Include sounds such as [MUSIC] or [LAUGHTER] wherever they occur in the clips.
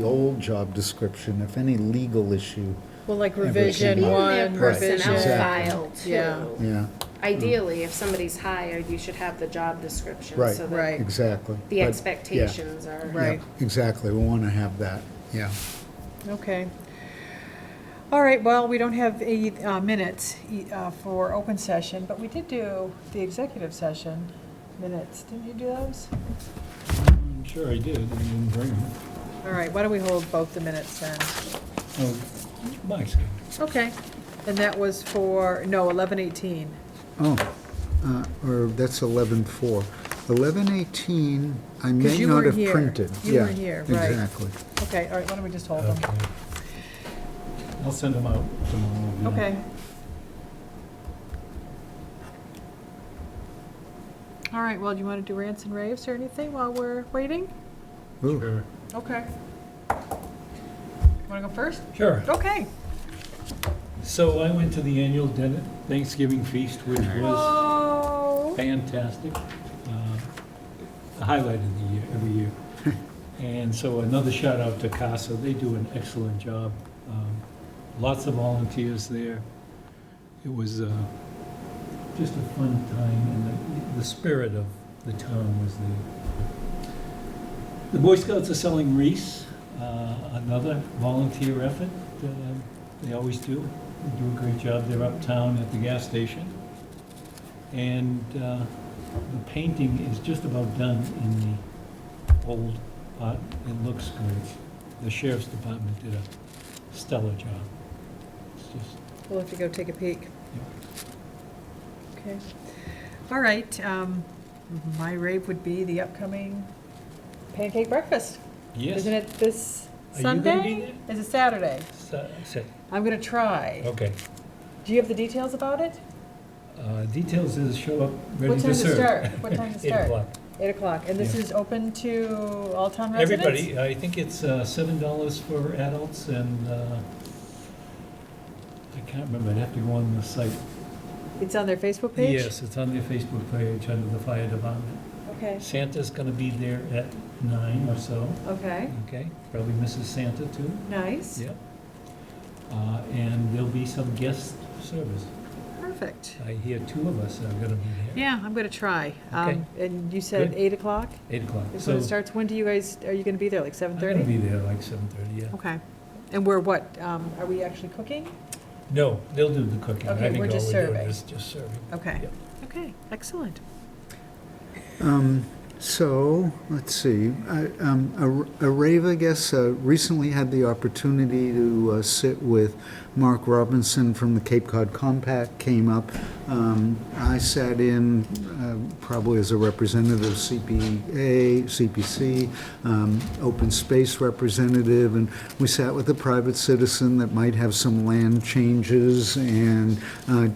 the old job description, if any legal issue, Well, like Every revision single- In their one, personnel Exactly. revision. file Yeah. too. yeah, Ideally, if somebody's hired, you should have the job description. Right. so that Right, exactly. The But, yeah, expectations are. yeah, Right. Exactly, we want to have that, yeah. okay. All right, well, we don't have any uh, minutes e- uh, for open session, but we did do the executive session minutes. Didn't you do those? I'm Mm, sure I did, I didn't bring them. All right, why don't we hold both the minutes then? Oh, my excuse. Okay. And that was for, no, 1118. Oh, uh, or that's 11-4. 11-18, I may you not were have here. printed. You Yeah, were here, right. Exactly. Okay, all right, why don't we just hold them? Okay. I'll send them out tomorrow. yeah. Okay. All right, well, do you want to do rants and raves or anything while we're waiting? Ooh, Sure. Okay. Want to go first? Sure. Okay. So I went to the annual dinner, Thanksgiving feast, which was Oh. fantastic. Uh, The highlight of the year, every year. And so another shout out to CASA, they do an excellent job. Um, Lots of volunteers there. It was uh, just a fun time, and the- the spirit of the town was there. The Boy Scouts are selling wreaths, uh, another volunteer effort. uh, They always do. They do a great job. They're uptown at the gas station. And uh, the painting is just about done in the old part. It looks great. The sheriff's department did a stellar job. It's just We'll have to go take a peek. Okay. All right, um, my rave would be the upcoming pancake breakfast. Yes. Isn't it this Are you gonna be Sunday? It's a Saturday. Sa- sa- I'm going to try. Okay. Do you have the details about it? Uh, Details is show up ready What to time to serve. start? [LAUGHS] What time to Eight start? o'clock. Eight o'clock, and this Yeah. is open to all town residents? Everybody, I think it's uh, seven dollars for adults and, uh, I can't remember, I'd have to go on the site. It's on their Facebook page? Yes, it's on their Facebook page under the fire department. Okay, Santa's gonna be there at nine or so, okay, okay? Probably Mrs. Santa too, nice, yep. Uh, And there'll be some guest service. perfect. I hear two of us are gonna be there. Yeah, I'm gonna try. Um, And you said Good. eight o'clock Eight o'clock. is So when it starts. When do you guys, are you gonna be there, like seven I'm gonna thirty? be there like seven thirty, yeah. Okay, and we're what, um, are we actually cooking? No, they'll do the cooking. I Okay, think we're all just we're doing serving. is just serving. Okay, Yep. okay, excellent. Um, So, let's see, I- um, A- Areva, I guess, uh, recently had the opportunity to uh, sit with Mark Robinson from the Cape Cod Compact, came up. Um, I sat in uh, probably as a representative of CPA, CPC, um, open space representative, and we sat with a private citizen that might have some land changes, and uh,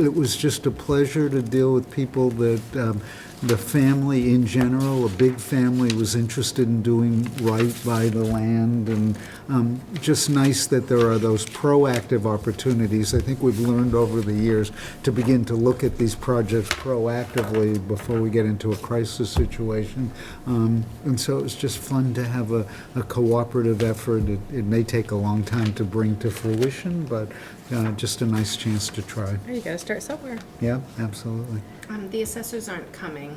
it was just a pleasure to deal with people that um, the family in general, a big family, was interested in doing right by the land, and um, just nice that there are those proactive opportunities. I think we've learned over the years to begin to look at these projects proactively before we get into a crisis situation. Um, And so it was just fun to have a a cooperative effort. It it may take a long time to bring to fruition, but uh, just a nice chance to try. Oh, You gotta start somewhere. Yeah, absolutely. Um, the assessors aren't coming.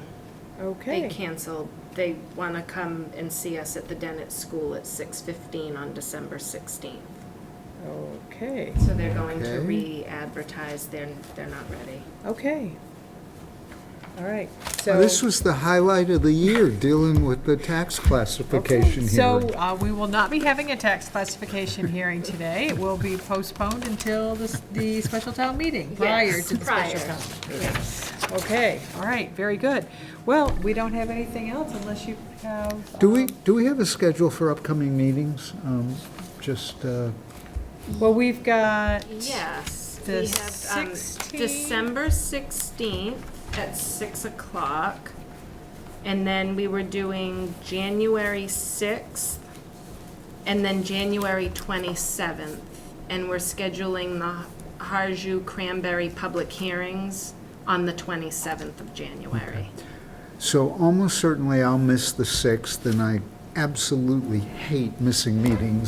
They Okay. canceled. They want to come and see us at the Dennett School at six fifteen on December sixteenth. Okay, So they're going to Okay. re-advertise. They're, they're not ready. okay. All right, so. This was the highlight of the year, dealing with the tax classification Okay, hearing. So uh, we will not be having a tax classification hearing today. It will be postponed until the s- the special town meeting, prior Yes, to the special prior. town. meeting. Okay, all right, very good. Well, we don't have anything else unless you have. Do we, um, do we have a schedule for upcoming meetings? Um, Just, uh, Well, we've got. Yes. The we have, um, 16th. December sixteenth at six o'clock. And then we were doing January sixth and then January twenty-seventh. And we're scheduling the Harju Cranberry public hearings on the twenty-seventh of January. so almost certainly I'll miss the 6th, and I absolutely hate missing meetings.